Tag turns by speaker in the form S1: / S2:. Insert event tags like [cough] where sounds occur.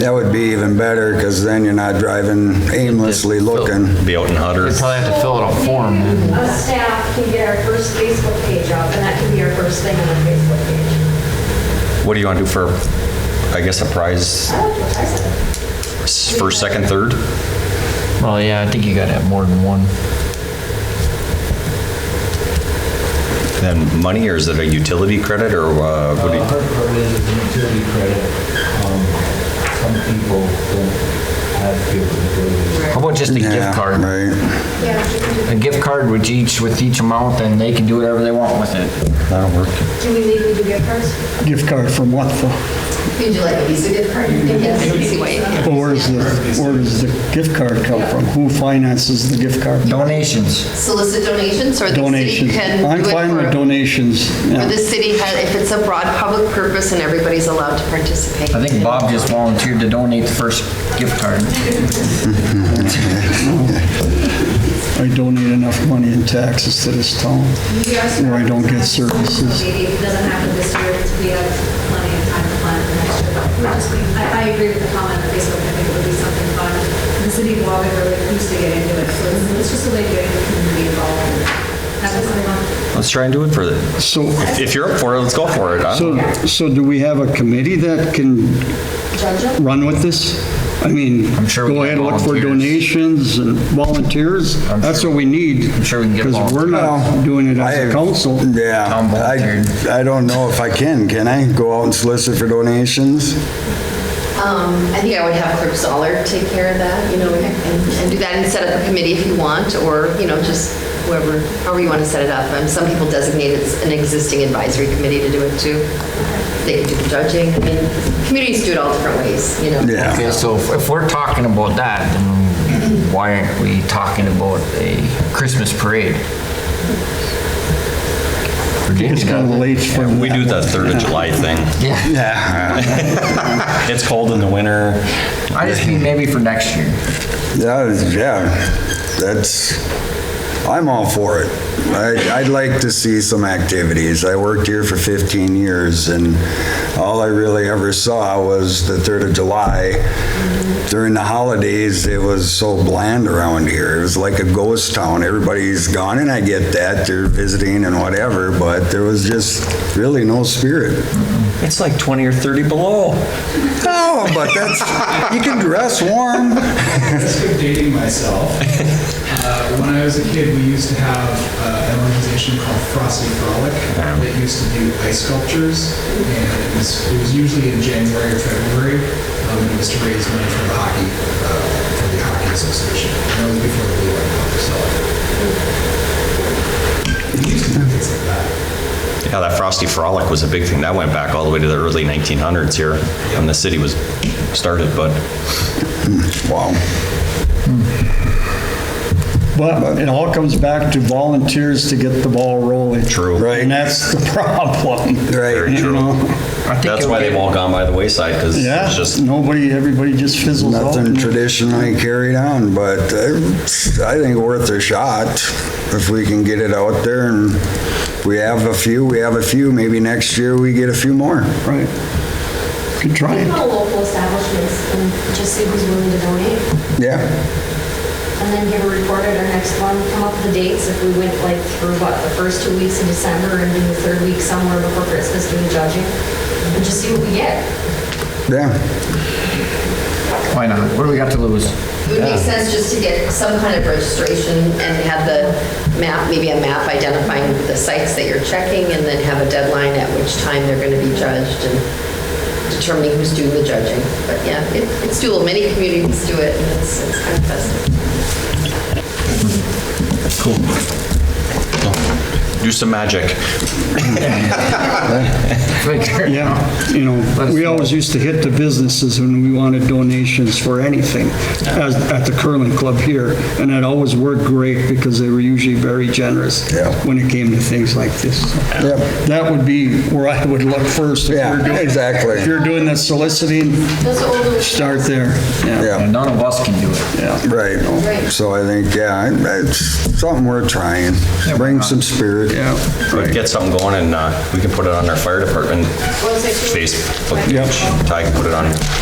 S1: That would be even better, because then you're not driving aimlessly looking.
S2: Be out in Hutter.
S3: You'd probably have to fill out a form. then.
S4: Us staff can get our first Facebook page up, and that can be our first thing on our Facebook page.
S2: What do you want to do for, I guess, a prize
S4: I like what I said.
S2: s- first, second, third?
S3: Well, yeah, I think you gotta have more than one.
S2: Then money, or is it a utility credit, or uh, what do
S5: Uh,
S2: you?
S5: Hard part is the utility credit. um, Some people don't have to be able to pay this.
S3: How about just a
S1: Yeah,
S3: gift card?
S1: Right.
S4: Yeah, you can do-
S3: A gift card with each, with each amount, and they can do whatever they want with it.
S2: Uh, That'll work.
S4: do we legally do gift cards?
S6: Gift card from what for?
S7: Could you like a Visa gift card? Yes, easy way.
S6: Well, where does the, where does the gift card come from? Who finances the gift card?
S3: Donations.
S7: Solicit donations or the city
S6: Donations.
S7: can do
S6: I'm
S7: it
S6: fine with
S7: for,
S6: donations.
S7: or
S6: yeah.
S7: the city, ha- if it's a broad public purpose and everybody's allowed to participate.
S3: I think Bob just volunteered to donate the first gift card.
S6: I donate enough money in taxes to this town where I don't get services.
S4: Maybe if it doesn't happen this year, we have plenty of time to plan for next year. But we're just- I, I agree with the comment on Facebook, I think it would be something fun. The city of Wagon really used to get into it, so it's- it's just a way to get the community involved. and That was my mom.
S2: Let's try and do it for the,
S6: So,
S2: if you're up for it, let's go for it. huh?
S6: so, so do we have a committee that can run with this? I mean,
S3: I'm sure we
S6: go
S3: can
S6: ahead, look for
S3: volunteers.
S6: donations and volunteers?
S3: I'm
S6: That's
S3: sure-
S6: what we need.
S3: I'm sure we can get
S6: Because we're not
S1: volunteers.
S6: doing it as
S1: I-
S6: a council.
S1: Yeah.
S3: Tom volunteered.
S1: I, I don't know if I can, can I? Go out and solicit for donations?
S7: Um, I think I would have Clerk Zoller take care of that, you know, and and do that and set up a committee if you want, or, you know, just whoever, however you want to set it up. And some people designate it's an existing advisory committee to do it too. They can do the judging, I mean, communities do it all different ways, you know.
S1: Yeah.
S3: Okay, so if- if we're talking about that, then why aren't we talking about a Christmas parade?
S6: It's kind of late for
S2: We do the 3rd of July thing.
S3: Yeah,
S1: Yeah,
S2: It's cold in the winter.
S3: I just mean maybe for next year.
S1: that is, yeah, that's, I'm all for it. I, I'd like to see some activities. I worked here for 15 years, and all I really ever saw was the 3rd of July. During the holidays, it was so bland around here. It was like a ghost town. Everybody's gone, and I get that, they're visiting and whatever, but there was just really no spirit.
S2: It's like 20 or 30 below.
S1: No, Oh, but that's, you can dress warm.
S8: That's for dating myself. Uh, When I was a kid, we used to have uh, an organization called Frosty Frolic that used to do ice sculptures, and it was, it was usually in January or February. um, It was to raise money for the hockey, uh, for the hockey association. And That was before the Blue White Club, so. We used to do things like that.
S2: Yeah, that Frosty Frolic was a big thing. That went back all the way to the early 1900s here when the city was started, but
S1: Wow.
S6: But it all comes back to volunteers to get the ball rolling.
S2: True. Mm-hmm. Right.
S6: And that's the [laughs] problem.
S2: very
S1: Right.
S2: true.
S3: I think
S2: That's
S3: it'll
S2: why
S3: get-
S2: they've all gone by the wayside because
S6: Yeah,
S2: it's just,
S6: nobody, everybody just fizzles out.
S1: Nothing traditionally carried on, but uh, I think worth a shot if we can get it out there and we have a few, we have a few, maybe next year we get a few more.
S6: Right. Good try.
S4: Think about local establishments and just see who's willing to donate,
S1: Yeah,
S4: and then give a report at our next one, come up with the dates, if we went like through what, the first two weeks in December and then the third week somewhere before Christmas doing judging, and just see what we get.
S1: yeah.
S3: Why not? What do we got to lose? [laughs]
S7: It would make sense just to get some kind of registration and have the map, maybe a map identifying the sites that you're checking and then have a deadline at which time they're going to be judged and determining who's doing the judging. But yeah, it- it's doable. Many communities do it and it's it's kind of festive.
S2: do some magic.
S6: Yeah, you know, we always used to hit the businesses when we wanted donations for anything as- at the curling club here. And it always worked great because they were usually very generous
S1: Yeah.
S6: when it came to things like this.
S1: Yep.
S6: That would be where I would look first. if you're
S1: Yeah,
S6: doing-
S1: exactly.
S6: If you're doing the soliciting, start there.
S1: Yeah.
S3: None of us can do it.
S6: Yeah.
S1: Right. So I think, yeah, it's something worth trying. Bring some spirit.
S6: Yeah,
S2: We can
S6: right.
S2: Get something going and uh, we can put it on our fire department Facebook page. Ty can put it on